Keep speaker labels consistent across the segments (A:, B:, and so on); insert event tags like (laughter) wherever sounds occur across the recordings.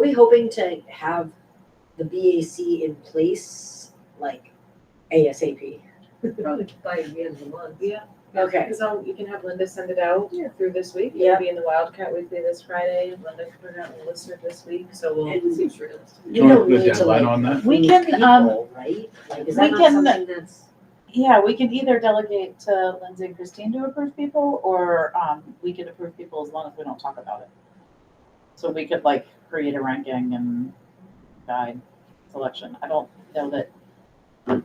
A: we hoping to have the BAC in place like ASAP?
B: Probably by the end of the month.
C: Yeah.
A: Okay.
C: Because um, you can have Linda send it out through this week.
A: Yeah.
C: It'll be in the Wildcat Weekly this Friday. Linda can put it out in the listener this week, so we'll.
A: And-
C: Seems realistic.
A: You
D: want to
A: don't
D: put a
A: need to,
D: deadline
A: like,
D: on that?
E: We
A: lose
E: can, um,
A: people, Right? Like, is
E: we
A: that not
E: can-
A: something that's?
E: Yeah, we can either delegate to Lindsay and Christine to approve people, or um, we can approve people as long as we don't talk about it. So we could like create a ranking and guide selection. I don't know that, I,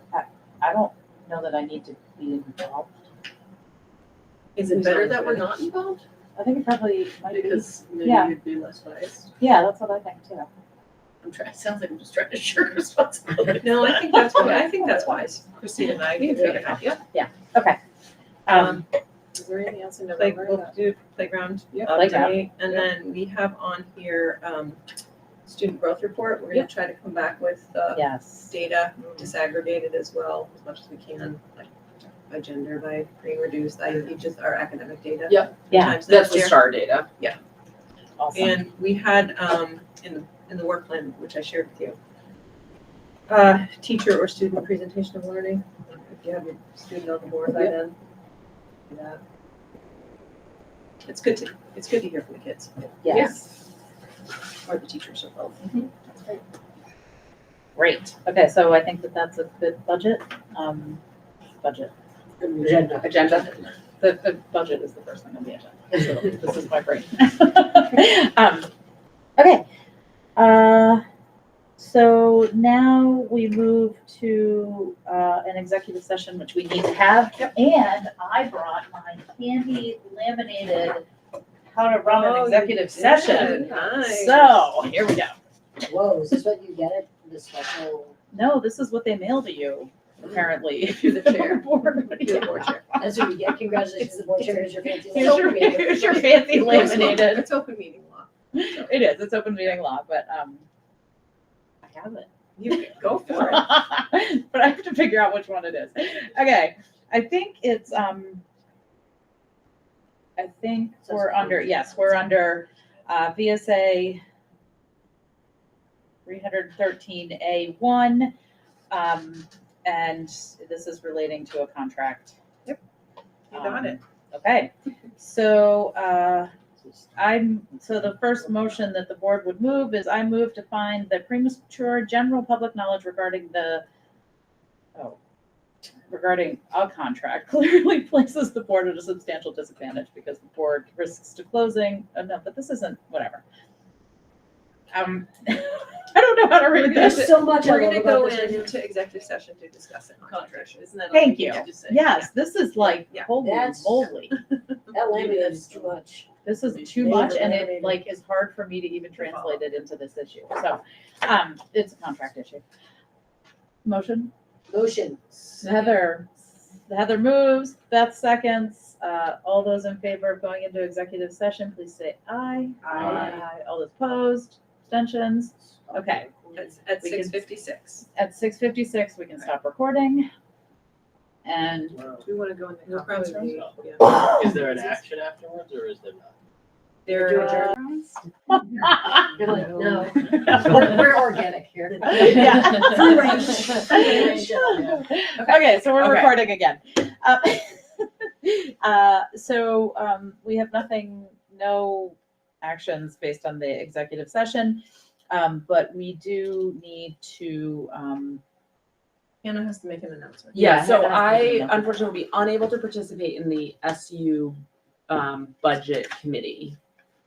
E: I don't know that I need to be involved.
C: Is it better that we're not involved?
E: I think it probably might be,
C: Because maybe
E: Yeah.
C: you'd be less biased.
E: yeah, that's what I think too.
B: I'm trying, it sounds like I'm just trying to share responsibility.
C: No, I think that's, I think that's wise. Christine and I can figure it out, yeah.
E: Um,
C: Is there anything else in
B: Like,
C: November?
B: we'll do playground
C: Yeah,
B: update, and
C: Yeah.
B: then we have on here, um, student growth report, we're
C: Yeah.
B: gonna try to come back with, uh,
E: yes,
B: data disaggregated as well, as much as we can, like, by gender, by grade reduced, IEP, just our academic data.
C: Yeah.
E: Yeah.
B: Times
C: That's
B: next
C: the
B: year.
C: star data.
E: awesome.
B: And we had, um, in the, in the work plan, which I shared with you, uh, teacher or student presentation of learning, if you have your student on the board by
C: Yeah.
B: then. do that. It's good to, it's good to hear from the kids,
E: Yes.
B: or the teachers as well.
E: Great. Okay, so I think that that's a good budget, um, budget.
A: Agenda.
E: agenda. The, the budget is the first thing on the agenda. So This is my brain. (laughs) Um, Okay. Uh, So now we move to uh, an executive session, which we need to have. And I brought my candy laminated how to run
B: Oh,
E: an
B: you did.
E: executive session.
B: Nice.
E: So here we go.
A: Whoa, is this what you get at the special?
E: No, this is what they mail to you, apparently. (laughs)
B: Through the chair.
E: Board.
B: (laughs) Do the board chair.
A: That's what you get, congratulations, the board chair, here's your fancy.
E: Here's your, here's your fancy laminated.
B: It's open meeting law.
E: It is, it's open meeting law, but, um, I have it.
B: You go for it.
E: (laughs) But I have to figure out which one it is. Okay, I think it's, um, I think
A: Says
E: we're under,
A: approved.
E: yes, we're under, uh, VSA three hundred thirteen A one. Um, and this is relating to a contract. Um,
B: You got it.
E: Okay, so, uh, I'm, so the first motion that the board would move is I move to find the premature general public knowledge regarding the, oh, regarding a contract (laughs) clearly places the board at a substantial disadvantage because the board risks to closing, oh no, but this isn't, whatever. Um, (laughs) I don't know how to read
A: There's
E: this.
A: so much I
B: We're
A: love
B: gonna go
A: about this. right
B: into executive session to discuss it.
C: Contract, isn't that? all
E: Thank
C: we
E: you.
C: have to say?
E: Yes, this is like,
B: Yeah.
E: holy
A: That's-
E: moly.
A: now. That laminate is too much.
E: this is too
A: They
E: much
A: were
E: and
A: animated.
E: it like is hard for me to even translate it into this issue. So, um, it's a contract issue. Motion,
A: Motion.
E: Heather, Heather moves, Beth seconds, uh, all those in favor of going into executive session, please say aye.
A: Aye.
E: All those opposed, abstentions, okay.
B: It's at
E: We can-
B: six fifty-six.
E: At six fifty-six, we can stop recording.
A: (laughs)
E: And
C: Do we want to go in the
B: We'll
C: conference
B: probably-
C: room?
B: yeah.
F: Is there an action afterwards or is there not?
B: There,
A: adjourn?
B: uh,
A: You're like, no, we're
E: Yeah.
A: we're organic (laughs) here.
E: (laughs)
A: Free range. Free
C: (laughs)
A: range.
E: Okay, so we're
B: Okay.
E: recording again. Uh, (laughs) uh, So um, we have nothing, no actions based on the executive session, um, but we do need to, um,
B: Hannah has to make an announcement.
C: Yeah,
E: Yeah,
C: so
E: Heather has to do
C: I
E: that.
C: unfortunately will be unable to participate in the SU um budget committee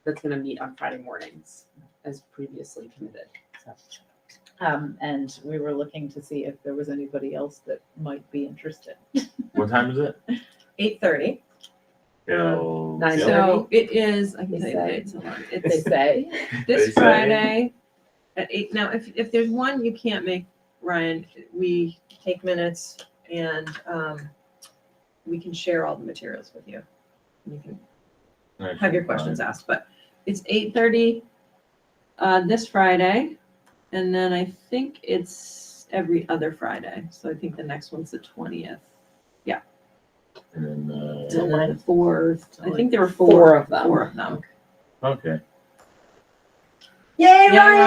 C: that's gonna meet on Friday mornings as previously committed.
E: um, and we were looking to see if there was anybody else that might be interested.
G: What time is it?
B: Eight thirty.
A: Uh,
G: Till-
B: Nine
G: till-
B: So it is, I can tell you the
E: They
B: dates, (laughs) hold on.
E: They
B: It's
E: say,
G: They
B: this
G: say-
B: Friday at eight. Now, if, if there's one you can't make, Ryan, we take minutes and, um, we can share all the materials with you. You can have your questions asked, but it's eight thirty uh, this Friday, and then I think it's every other Friday. So I think the next one's the twentieth.
G: And then,
B: July fourth. I think there were
C: Four
B: four
C: of them.
B: Four of them.
G: uh, okay.
A: Yay,
B: Yeah,
A: Ryan!